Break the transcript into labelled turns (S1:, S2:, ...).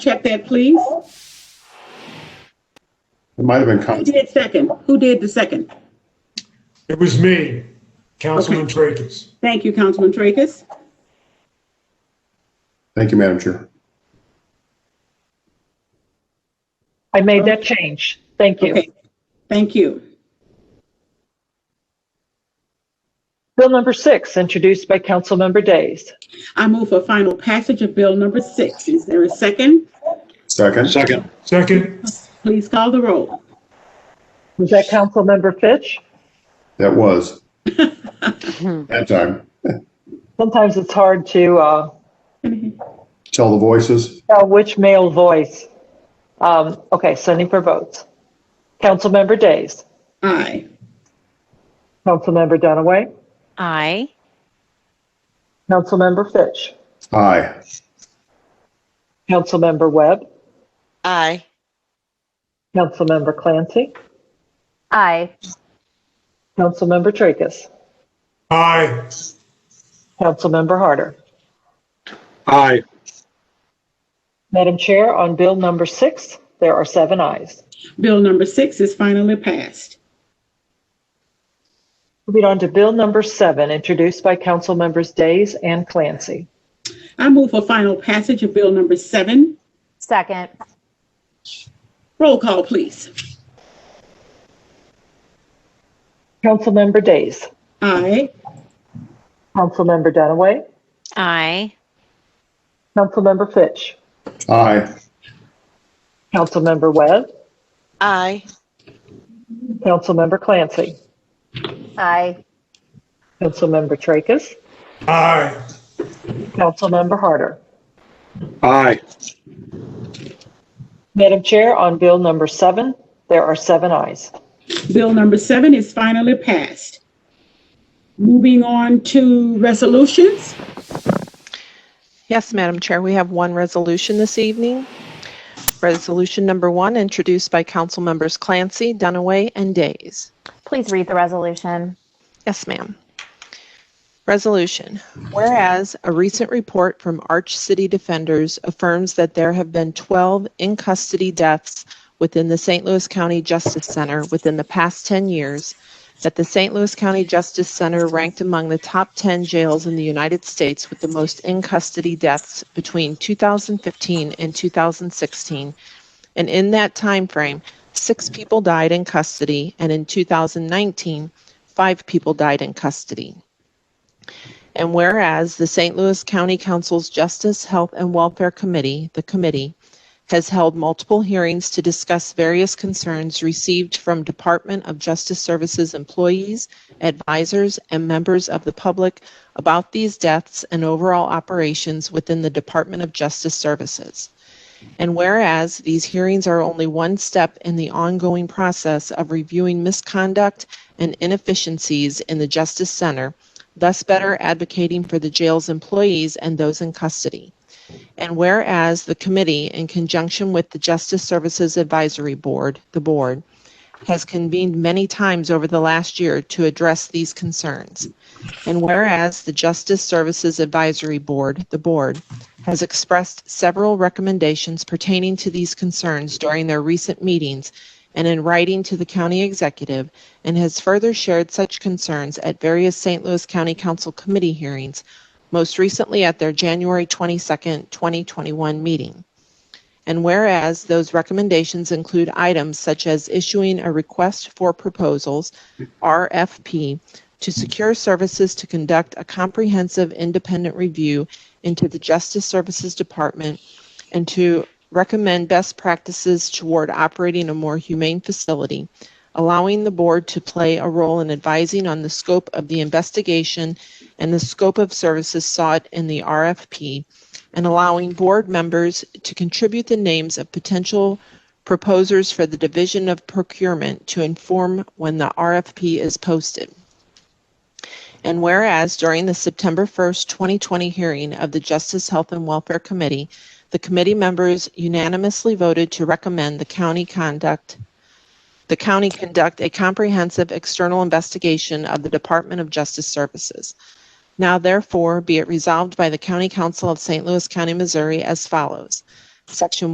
S1: Check that, please.
S2: It might have been
S1: Who
S2: con-
S1: did second? Who did the second?
S3: It was me, Councilman Tracus.
S1: Thank you, Councilman Tracus.
S2: Thank you, Madam Chair.
S4: I made that change. Thank you.
S1: Okay, thank you.
S4: Bill number six, introduced by Councilmember Days.
S1: I move for final passage of Bill number six. Is there a second?
S2: Second?
S5: Second,
S3: Second,
S1: Please call the roll.
S4: Was that Councilmember Fitch?
S2: That was. That time.
S4: Sometimes it's hard to uh,
S2: Tell the voices.
S4: tell which male voice. Um, Okay, sending for votes. Councilmember Days,
S1: Aye.
S4: Councilmember Dunaway,
S6: Aye.
S4: Councilmember Fitch,
S2: Aye.
S4: Councilmember Webb,
S6: Aye.
S4: Councilmember Clancy,
S7: Aye.
S4: Councilmember Tracus,
S3: aye.
S4: Councilmember Harder.
S5: aye.
S4: Madam Chair, on bill number six, there are seven ayes.
S1: Bill number six is finally passed.
S4: Moving on to bill number seven, introduced by Councilmembers Days and Clancy.
S1: I move for final passage of Bill number seven.
S7: Second.
S1: Roll call, please.
S4: Councilmember Days,
S1: Aye.
S4: Councilmember Dunaway,
S6: Aye.
S4: Councilmember Fitch,
S2: Aye.
S4: Councilmember Webb,
S6: Aye.
S4: Councilmember Clancy,
S7: Aye.
S4: Councilmember Tracus,
S3: Aye.
S4: Councilmember Harder.
S5: Aye.
S4: Madam Chair, on bill number seven, there are seven ayes.
S1: Bill number seven is finally passed. Moving on to resolutions.
S8: Yes, Madam Chair, we have one resolution this evening. Resolution number one, introduced by Council Members Clancy, Dunaway, and Days.
S7: Please read the resolution.
S8: Yes, ma'am. Resolution. Whereas a recent report from Arch City Defenders affirms that there have been 12 in-custody deaths within the St. Louis County Justice Center within the past 10 years, that the St. Louis County Justice Center ranked among the top 10 jails in the United States with the most in-custody deaths between 2015 and 2016, and in that time frame, six people died in custody, and in 2019, five people died in custody. And whereas the St. Louis County Council's Justice, Health, and Welfare Committee, the committee, has held multiple hearings to discuss various concerns received from Department of Justice Services employees, advisors, and members of the public about these deaths and overall operations within the Department of Justice Services. And whereas these hearings are only one step in the ongoing process of reviewing misconduct and inefficiencies in the Justice Center, thus better advocating for the jail's employees and those in custody. And whereas the committee, in conjunction with the Justice Services Advisory Board, the board, has convened many times over the last year to address these concerns. And whereas the Justice Services Advisory Board, the board, has expressed several recommendations pertaining to these concerns during their recent meetings and in writing to the county executive, and has further shared such concerns at various St. Louis County Council committee hearings, most recently at their January 22, 2021 meeting. And whereas those recommendations include items such as issuing a request for proposals, RFP, to secure services to conduct a comprehensive independent review into the Justice Services Department and to recommend best practices toward operating a more humane facility, allowing the board to play a role in advising on the scope of the investigation and the scope of services sought in the RFP, and allowing board members to contribute the names of potential proposers for the Division of Procurement to inform when the RFP is posted. And whereas during the September 1st, 2020 hearing of the Justice, Health, and Welfare Committee, the committee members unanimously voted to recommend the county conduct, the county conduct a comprehensive external investigation of the Department of Justice Services. Now therefore be it resolved by the County Council of St. Louis County, Missouri as follows. Section